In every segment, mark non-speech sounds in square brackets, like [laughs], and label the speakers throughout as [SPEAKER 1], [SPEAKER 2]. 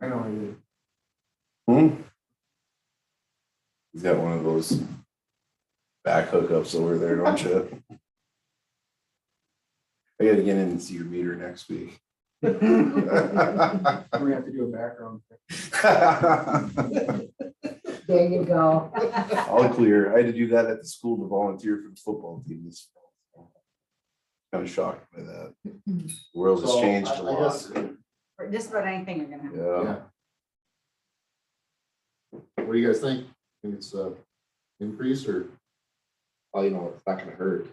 [SPEAKER 1] I know I did.
[SPEAKER 2] Hmm? He's got one of those back hookups over there, don't you? I gotta get in and see your meter next week. [laughs]
[SPEAKER 3] [laughs]
[SPEAKER 1] We're gonna have to do a background. check.
[SPEAKER 4] There you go.
[SPEAKER 2] All clear. I had to do that at the school to volunteer for the football team this fall. Kind of shocked by that. The world has
[SPEAKER 1] So,
[SPEAKER 2] changed
[SPEAKER 1] I- I
[SPEAKER 2] a lot.
[SPEAKER 1] guess-
[SPEAKER 4] For just about anything you're gonna have.
[SPEAKER 2] Yeah,
[SPEAKER 5] What do you guys think? Think it's a increase or?
[SPEAKER 6] Well, you know, it's not gonna hurt.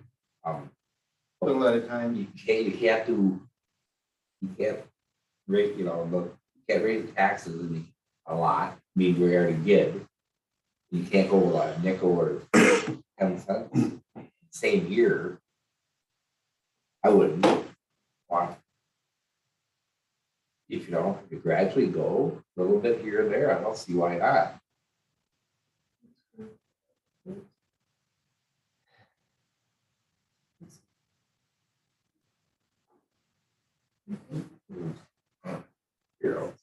[SPEAKER 6] Um,
[SPEAKER 1] Little at a time.
[SPEAKER 6] you can't, you have to, you can't raise, you know, look, you can't raise the taxes in the- a lot, I mean, we already did. You can't go a nickel or [coughs] ten cents, same year. I wouldn't want. If you don't, if you gradually go a little bit here and there, I don't see why not. You know,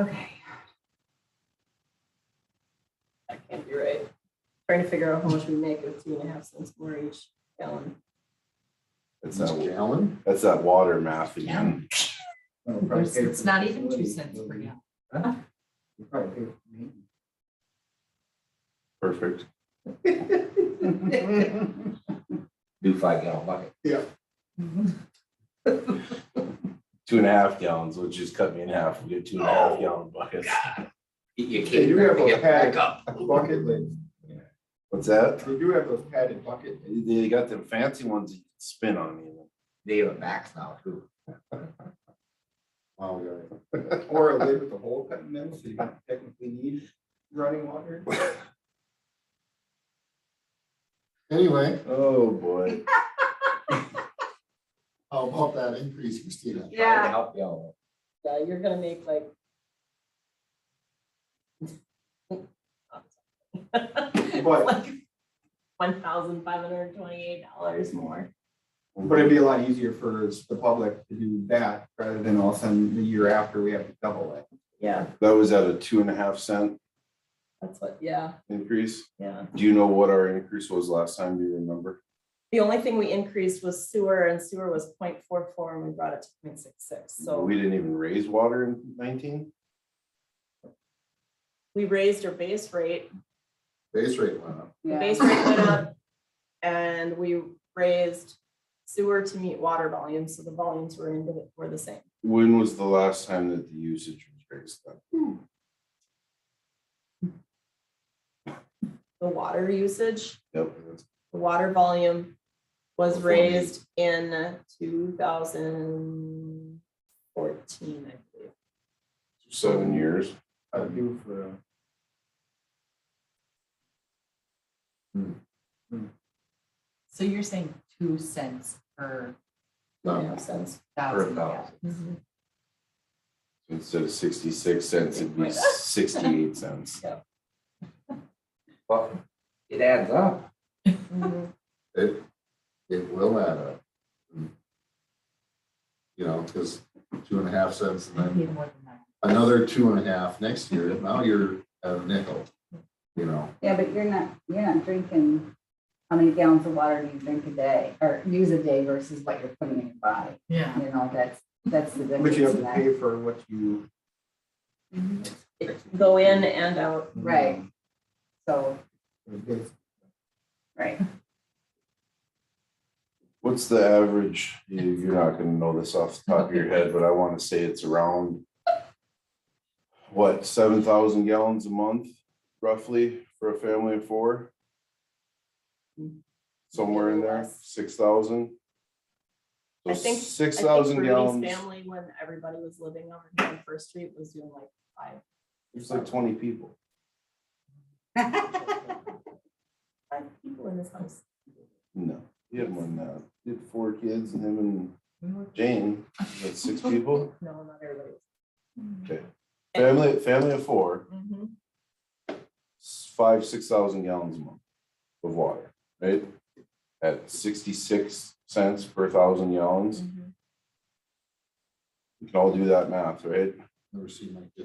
[SPEAKER 4] Okay,
[SPEAKER 7] That can't be right. Trying to figure out how much we make of two and a half cents more each gallon.
[SPEAKER 2] that's
[SPEAKER 5] It's a
[SPEAKER 2] that,
[SPEAKER 5] gallon?
[SPEAKER 2] that's that water math again.
[SPEAKER 1] I'll probably
[SPEAKER 3] There's-
[SPEAKER 1] pay
[SPEAKER 3] It's
[SPEAKER 1] for
[SPEAKER 3] not even two
[SPEAKER 1] facility,
[SPEAKER 3] cents per
[SPEAKER 1] so
[SPEAKER 3] gallon.
[SPEAKER 1] we'll Probably pay for maintenance.
[SPEAKER 2] Perfect.
[SPEAKER 3] [laughs]
[SPEAKER 6] do five gallon bucket.
[SPEAKER 4] Mm-hmm.
[SPEAKER 2] Two and a half gallons, which just cut me in half. We get two and a half gallon buckets.
[SPEAKER 6] You- You
[SPEAKER 1] They
[SPEAKER 6] can't.
[SPEAKER 1] do have
[SPEAKER 6] really
[SPEAKER 1] those
[SPEAKER 6] get back
[SPEAKER 1] padded
[SPEAKER 6] up.
[SPEAKER 1] bucket lids.
[SPEAKER 2] What's that?
[SPEAKER 1] They do have those padded bucket. lids.
[SPEAKER 2] They got them fancy ones that you can spin on you.
[SPEAKER 6] They have a max now too.
[SPEAKER 5] Wow, we got it.
[SPEAKER 1] Or a lid with a hole cut in them, so you don't technically need running water.
[SPEAKER 5] Anyway,
[SPEAKER 2] Oh, boy.
[SPEAKER 5] how about that increase, Christina?
[SPEAKER 6] trying to
[SPEAKER 4] yeah,
[SPEAKER 6] Help you out.
[SPEAKER 7] Yeah, you're gonna make like. [laughs] Like one thousand five hundred twenty-eight dollars more.
[SPEAKER 1] But it'd be a lot easier for the public to do that rather than all of a sudden the year after we have to double it.
[SPEAKER 7] Yeah,
[SPEAKER 2] That was at a two and a half cent
[SPEAKER 7] that's what, yeah,
[SPEAKER 2] increase.
[SPEAKER 7] yeah.
[SPEAKER 2] Do you know what our increase was last time? Do you remember?
[SPEAKER 7] The only thing we increased was sewer and sewer was 0.44 and we brought it to 0.66. So
[SPEAKER 2] We didn't even raise water in nineteen?
[SPEAKER 7] we raised our base rate
[SPEAKER 5] Base rate went up.
[SPEAKER 7] The
[SPEAKER 4] yeah.
[SPEAKER 7] base rate went up and we raised sewer to meet water volumes, so the volumes were in, the- were the same.
[SPEAKER 2] When was the last time that the usage was raised then?
[SPEAKER 7] The water usage,
[SPEAKER 2] Yep.
[SPEAKER 7] the water volume was
[SPEAKER 2] Before me.
[SPEAKER 7] raised in two thousand fourteen, I believe.
[SPEAKER 2] Seven years.
[SPEAKER 1] I would do for. a-
[SPEAKER 3] So you're saying two cents per
[SPEAKER 7] Two and a half cents.
[SPEAKER 3] thousand
[SPEAKER 6] thousand.
[SPEAKER 3] gallons.
[SPEAKER 2] Instead of sixty-six cents, it'd be sixty-eight cents.
[SPEAKER 6] But it adds up.
[SPEAKER 7] Mhm.
[SPEAKER 5] It, it will add up. You know, because two and a half cents and then
[SPEAKER 3] Maybe more than that.
[SPEAKER 5] another two and a half next year. Now you're at a nickel, you know?
[SPEAKER 4] Yeah, but you're not, you're not drinking, how many gallons of water do you drink a day or use a day versus what you're putting in your body?
[SPEAKER 3] Yeah.
[SPEAKER 4] You know, that's, that's the
[SPEAKER 1] But you
[SPEAKER 4] difference
[SPEAKER 1] have
[SPEAKER 4] in
[SPEAKER 1] to
[SPEAKER 4] that.
[SPEAKER 1] pay for what you.
[SPEAKER 7] It- Go in and out.
[SPEAKER 4] Right. So,
[SPEAKER 1] It's
[SPEAKER 4] right.
[SPEAKER 2] What's the average? You- You're not gonna know this off the top of your head, but I wanna say it's around what, seven thousand gallons a month roughly for a family of four? Somewhere in there,
[SPEAKER 7] Less.
[SPEAKER 2] six thousand?
[SPEAKER 7] I think-
[SPEAKER 2] Six
[SPEAKER 7] I think
[SPEAKER 2] thousand
[SPEAKER 7] Bernie's
[SPEAKER 2] gallons,
[SPEAKER 7] Family, when everybody was living over here on First Street, was doing like five,
[SPEAKER 2] it's like twenty people.
[SPEAKER 7] five people in this house.
[SPEAKER 2] No, he had one, uh, he had four kids and him and Jane, that's six people.
[SPEAKER 7] No, not everybody. Mm-hmm.
[SPEAKER 2] Family, family of four,
[SPEAKER 7] Mhm.
[SPEAKER 2] s- five, six thousand gallons a month of water, right? At sixty-six cents per thousand gallons,
[SPEAKER 7] Mhm.
[SPEAKER 2] we can all do that math, right?
[SPEAKER 5] Never seen like this.